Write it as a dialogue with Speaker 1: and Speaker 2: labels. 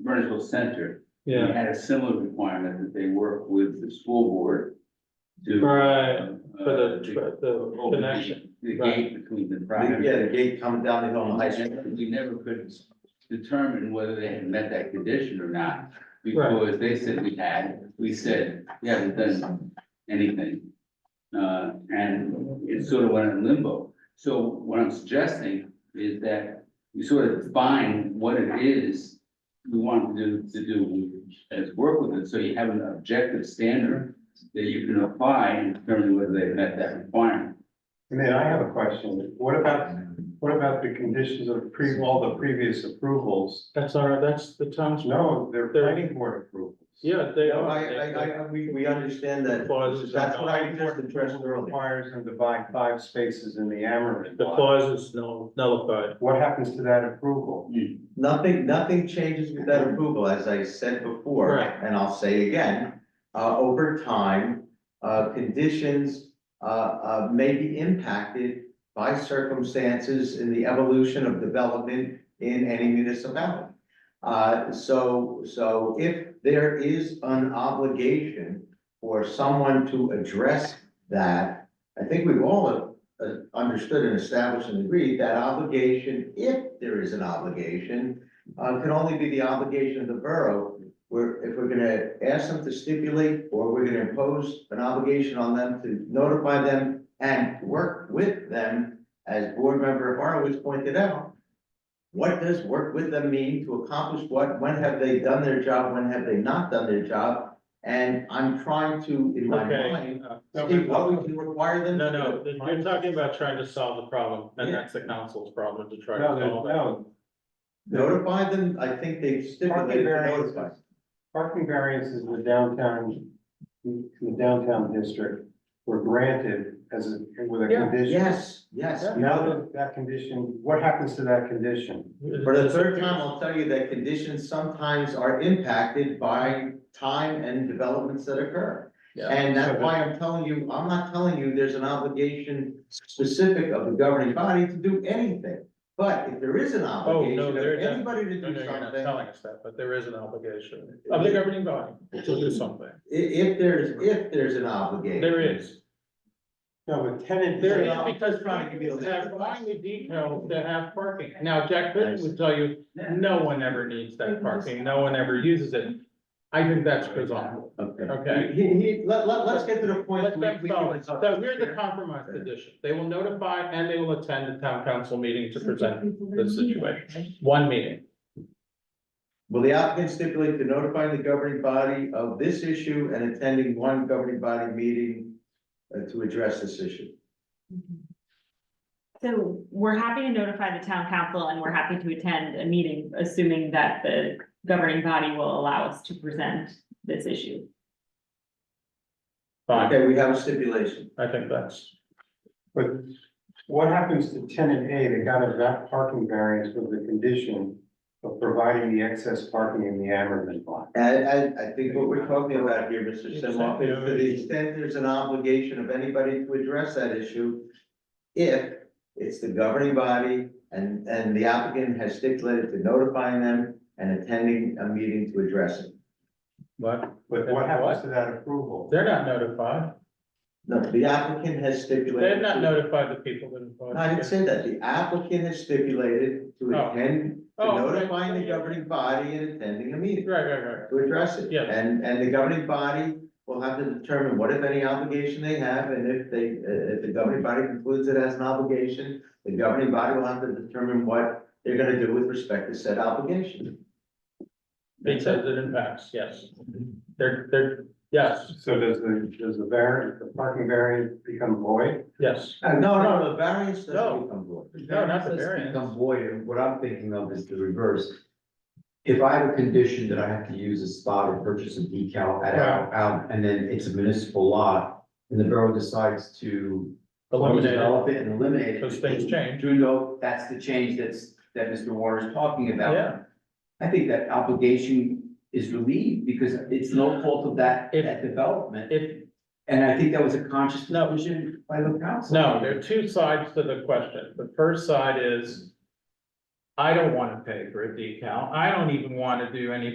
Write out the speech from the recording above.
Speaker 1: Burnsville Center. we
Speaker 2: yeah,
Speaker 1: Had a similar requirement that they work with the school board to.
Speaker 2: right,
Speaker 1: uh,
Speaker 2: for the,
Speaker 1: to
Speaker 2: for
Speaker 3: Oh,
Speaker 1: open
Speaker 2: the
Speaker 1: the-
Speaker 2: connection,
Speaker 1: The
Speaker 2: right.
Speaker 1: gate between the private.
Speaker 3: Yeah, the gate coming down the hill on
Speaker 1: Um,
Speaker 3: High
Speaker 1: I
Speaker 3: Street.
Speaker 1: never- We never could determine whether they had met that condition or not, because they said we had, we said, we haven't done anything. Uh, and it sort of went in limbo. So what I'm suggesting is that we sort of define what it is we want to do, to do as work with it, so you have an objective standard that you can apply in determining whether they met that requirement.
Speaker 4: And then I have a question. What about, what about the conditions of pre, all the previous approvals?
Speaker 2: that's all right, that's the town's,
Speaker 4: No, they're planning board approvals.
Speaker 2: yeah, they
Speaker 3: No,
Speaker 2: are.
Speaker 3: I, I, I, I- we, we understand that,
Speaker 2: Clauses.
Speaker 3: that's what I just
Speaker 4: The
Speaker 3: addressed
Speaker 4: threshold
Speaker 3: earlier.
Speaker 4: requires them to buy five spaces in the Amarin
Speaker 2: The
Speaker 4: lot.
Speaker 2: clause is null- nullified,
Speaker 4: What happens to that approval?
Speaker 3: Nothing, nothing changes with that approval, as I said before,
Speaker 2: Right.
Speaker 3: and I'll say again, uh, over time, uh, conditions uh, uh, may be impacted by circumstances in the evolution of development in any municipality. Uh, so, so if there is an obligation for someone to address that, I think we've all uh, understood and established and agreed that obligation, if there is an obligation, uh, can only be the obligation of the borough. We're, if we're gonna ask them to stipulate, or we're gonna impose an obligation on them to notify them and work with them, as board member Horowitz pointed out. What does work with them mean to accomplish what? When have they done their job? When have they not done their job? And I'm trying to, in my
Speaker 2: okay.
Speaker 3: mind,
Speaker 2: uh,
Speaker 3: see what we can require them.
Speaker 2: No,
Speaker 3: to do.
Speaker 2: no, you're talking about trying to solve the problem, and
Speaker 3: Yeah.
Speaker 2: that's the council's problem to try to
Speaker 4: No,
Speaker 2: solve. it.
Speaker 4: there's- no,
Speaker 3: Notify them, I think they stipulated to
Speaker 4: variances.
Speaker 3: notify.
Speaker 4: Parking variances in the downtown, in the downtown district were granted as a, with a
Speaker 2: Yeah.
Speaker 4: condition.
Speaker 3: Yes, yes.
Speaker 4: Now that that condition, what happens to that condition?
Speaker 3: For the third time, I'll tell you that conditions sometimes are impacted by time and developments that occur.
Speaker 2: Yeah.
Speaker 3: And
Speaker 4: So
Speaker 3: that's
Speaker 4: the-
Speaker 3: why I'm telling you, I'm not telling you there's an obligation specific of the governing body to do anything. But if there is an obligation of
Speaker 2: Oh, there- yeah.
Speaker 3: anybody to
Speaker 2: No, no,
Speaker 3: do
Speaker 2: you're not
Speaker 3: something,
Speaker 2: telling us that, but there is an obligation of the governing body to do something.
Speaker 3: i- if there's, if there's an obligation.
Speaker 2: There is.
Speaker 4: No, but tenant.
Speaker 2: There
Speaker 3: Yeah.
Speaker 2: is because
Speaker 3: uh, Trying to give you
Speaker 2: people
Speaker 3: the-
Speaker 2: have buying the details that have parking. Now, Jack Benton would tell you, no one ever needs that parking. No one ever uses it. I think that's bizarre.
Speaker 3: Okay.
Speaker 2: Okay.
Speaker 3: He, he, let, let, let's get to the point.
Speaker 2: Let
Speaker 3: we-
Speaker 2: them
Speaker 3: we
Speaker 2: solve
Speaker 3: can-
Speaker 2: it. So here's the compromise position. They will notify and they will attend the town council meeting to present the situation. One meeting.
Speaker 3: Will the applicant stipulate to notifying the governing body of this issue and attending one governing body meeting uh, to address this issue?
Speaker 5: So we're happy to notify the town council and we're happy to attend a meeting, assuming that the governing body will allow us to present this issue.
Speaker 2: Fine.
Speaker 3: Okay, we have a stipulation.
Speaker 2: I think that's,
Speaker 4: But what happens to tenant A that got a va- parking variance with the condition of providing the excess parking in the Ammerman lot?
Speaker 3: And, and I think what we're talking about here, Mr. Simoff, is to the extent there's an obligation of anybody to address that issue, if it's the governing body and, and the applicant has stipulated to notifying them and attending a meeting to address it.
Speaker 2: but
Speaker 4: But what happens to that approval?
Speaker 2: they're not notified.
Speaker 3: No, the applicant has stipulated.
Speaker 2: They've not
Speaker 3: to-
Speaker 2: notified the people that.
Speaker 3: No,
Speaker 2: involved.
Speaker 3: I didn't say that. The applicant has stipulated to
Speaker 2: Oh.
Speaker 3: attend, to
Speaker 2: Oh, right.
Speaker 3: notifying the governing body and attending a meeting
Speaker 2: Right, right, right.
Speaker 3: to address it.
Speaker 2: Yeah.
Speaker 3: And, and the governing body will have to determine what if any obligation they have, and if they, uh, if the governing body concludes it as an obligation, the governing body will have to determine what they're gonna do with respect to said obligation.
Speaker 2: Because it impacts, yes. They're, they're, yes,
Speaker 4: So does the, does the variant, the parking variance become void?
Speaker 2: yes.
Speaker 3: Uh, No, no, the variance
Speaker 2: No.
Speaker 3: doesn't become void.
Speaker 2: No, not the
Speaker 6: Variances
Speaker 2: variance.
Speaker 6: Become void, and what I'm thinking of is the reverse. If I have a condition that I have to use a spot or purchase a decal at out, out, and then it's a municipal lot, and the borough decides to
Speaker 2: Eliminate it.
Speaker 6: develop it and eliminate it.
Speaker 2: Those things change.
Speaker 6: Druno, that's the change that's, that Mr. Warner's talking about.
Speaker 2: Yeah.
Speaker 6: I think that obligation is relieved, because it's no fault of that,
Speaker 2: If-
Speaker 6: that development,
Speaker 2: If,
Speaker 6: and I think that was a conscious
Speaker 2: No.
Speaker 6: decision by the council.
Speaker 2: no, there are two sides to the question. The first side is I don't want to pay for a decal. I don't even want to do any